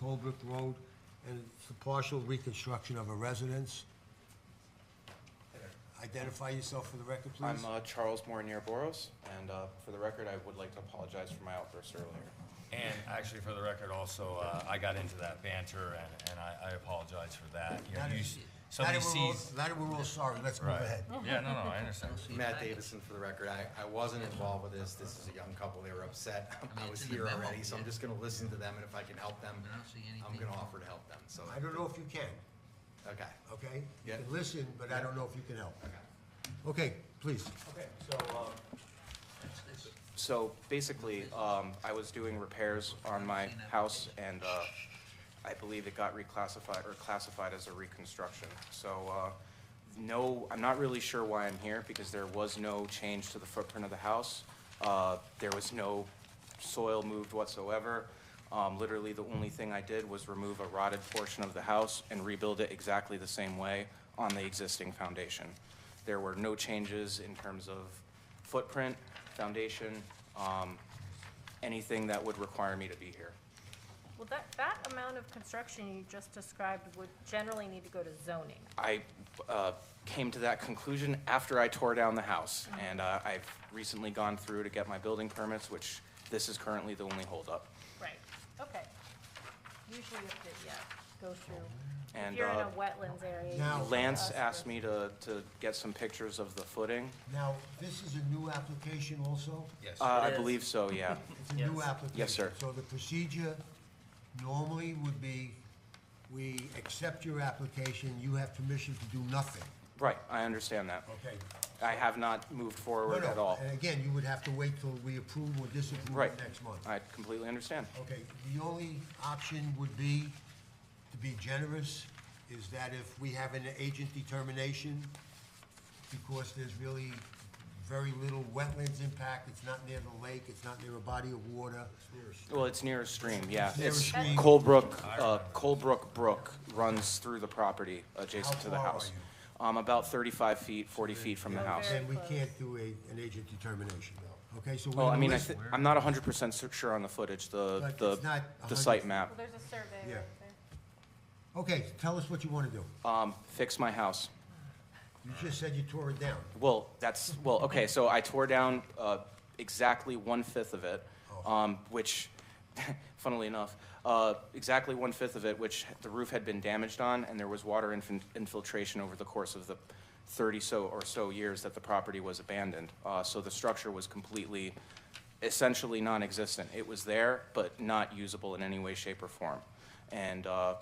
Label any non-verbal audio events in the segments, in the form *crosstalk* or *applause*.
Holbrook Road, and it's a partial reconstruction of a residence. Identify yourself for the record, please. I'm uh, Charles Mornier Boros, and uh, for the record, I would like to apologize for my outburst earlier. And actually, for the record also, uh, I got into that banter and, and I, I apologize for that. You know, Now that- you s- now Somebody that we're all- sees. Now that we're all sorry, let's move Right. ahead. Yeah, no, no, I understand. Matt Davison, for the record, I, I wasn't involved with this, this is a young couple, they were upset, I *laughs* it's was in the here memo, already, so I'm yeah. just gonna listen to them, and if I can help them, I don't see I'm anything. gonna offer to help them, so, I don't know if you can, okay. okay? You Yeah. can listen, but I don't know if you can help. Okay, please. Okay, so, um, That's this. So basically, um, I was doing repairs on my house and, uh, I believe it got reclassified or classified as a reconstruction. So, uh, no, I'm not really sure why I'm here because there was no change to the footprint of the house. Uh, there was no soil moved whatsoever. Um, literally, the only thing I did was remove a rotted portion of the house and rebuild it exactly the same way on the existing foundation. There were no changes in terms of footprint, foundation, um, anything that would require me to be here. Well, that, that amount of construction you just described would generally need to go to zoning. I uh, came to that conclusion after I tore down the house, Mm-hmm. and uh, I've recently gone through to get my building permits, which this is currently the only holdup. Right. Okay. Usually you have to, yeah, go through, if And, you're in uh, a wetlands area. you Now- have to Lance ask for- asked me to, to get some pictures of the footing. Now, this is a new application also? Yes. Uh, I believe *laughs* so, yeah. It's a new application. Yes, sir. So the procedure normally would be, we accept your application, you have permission to do nothing. Right, I understand that. Okay. I have not moved forward at all. And again, you would have to wait till we approve or Right. disapprove next month. I completely understand. Okay, the only option would be, to be generous, is that if we have an agent determination, because there's really very little wetlands impact, it's not near the lake, it's not near a body of water. Well, it's near a stream, yeah. near a It's stream. Colebrook, uh, Colebrook Brook runs through the property adjacent How to the far are house. Um, about thirty-five feet, forty feet from the house. Okay. Then we can't do a, an agent determination, okay? So we're Well, I gonna mean, I list- thi- I'm not hundred percent sure on the footage, the, But the, it's not the 100. site Well, map. there's a survey Yeah. right there. Okay, tell us what you wanna do. Um, fix my house. You just said you tore it down. Well, that's, well, okay, so I tore down, uh, exactly one-fifth of it, um, which, *laughs* funnily enough, uh, exactly one-fifth of it, which the roof had been damaged on, and there was water infin- infiltration over the course of the thirty so or so years that the property was abandoned. Uh, so the structure was completely, essentially non-existent. It was there, but not usable in any way, shape, or form. And, uh,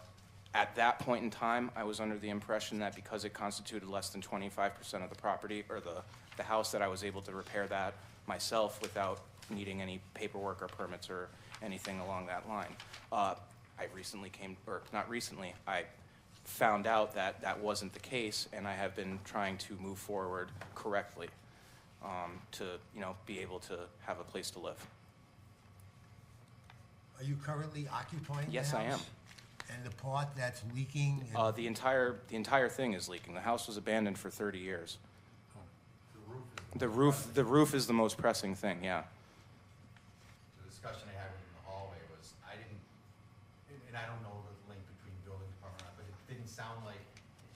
at that point in time, I was under the impression that because it constituted less than twenty-five percent of the property or the, the house, that I was able to repair that myself without needing any paperwork or permits or anything along that line. Uh, I recently came, or not recently, I found out that that wasn't the case, and I have been trying to move forward correctly, um, to, you know, be able to have a place to live. Are you currently occupying the Yes, I house? am. And the part that's leaking? and- Uh, the entire, the entire thing is leaking. The house was abandoned for 30 years. The roof, the roof is the most pressing thing, yeah. the discussion I had in the hallway was, I didn't, and, and I don't know the link between building department, but it didn't sound like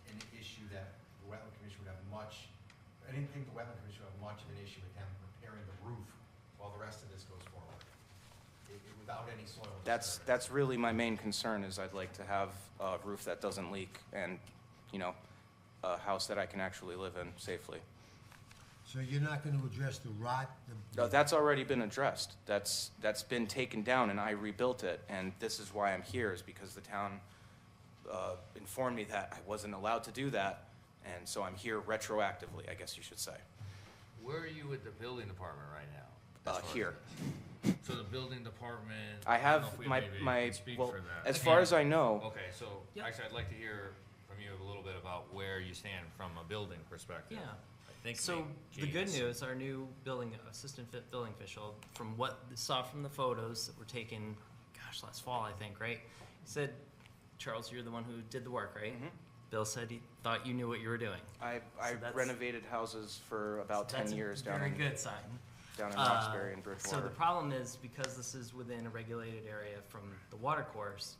an issue that the wetland commission would have much, I didn't think the wetland commission would have much of an issue with them repairing the roof while the rest of this goes forward. It- it- Without any soil. That's, disturbance. that's really my main concern, is I'd like to have a roof that doesn't leak and, you know, a house that I can actually live in safely. So you're not gonna address the rot? the- No, Uh, that's already been addressed. That's, that's been taken down and I rebuilt it. And this is why I'm here, is because the town uh, informed me that I wasn't allowed to do that. And so I'm here retroactively, I guess you should say. Where are you with the building department right now? Uh, As far as here. this? So the building department. I don't know have if we my, maybe my, can speak well, for that. as far Yeah. as I know, Okay, so actually, I'd like to hear from you a little bit about where you stand from a building perspective. Yeah. I think So maybe the good James- news, our new building assistant fit building official, from what they saw from the photos that were taken, gosh, last fall I think, right? Said, Charles, you're the one who did the work, right? Mm-hmm. Bill said he thought you knew what you were doing. I, I that's- renovated houses for about So that's ten a years down Very in, good sign. down in Uh, Roxbury and So the Bridgewater. problem is because this is within a regulated area from the water course,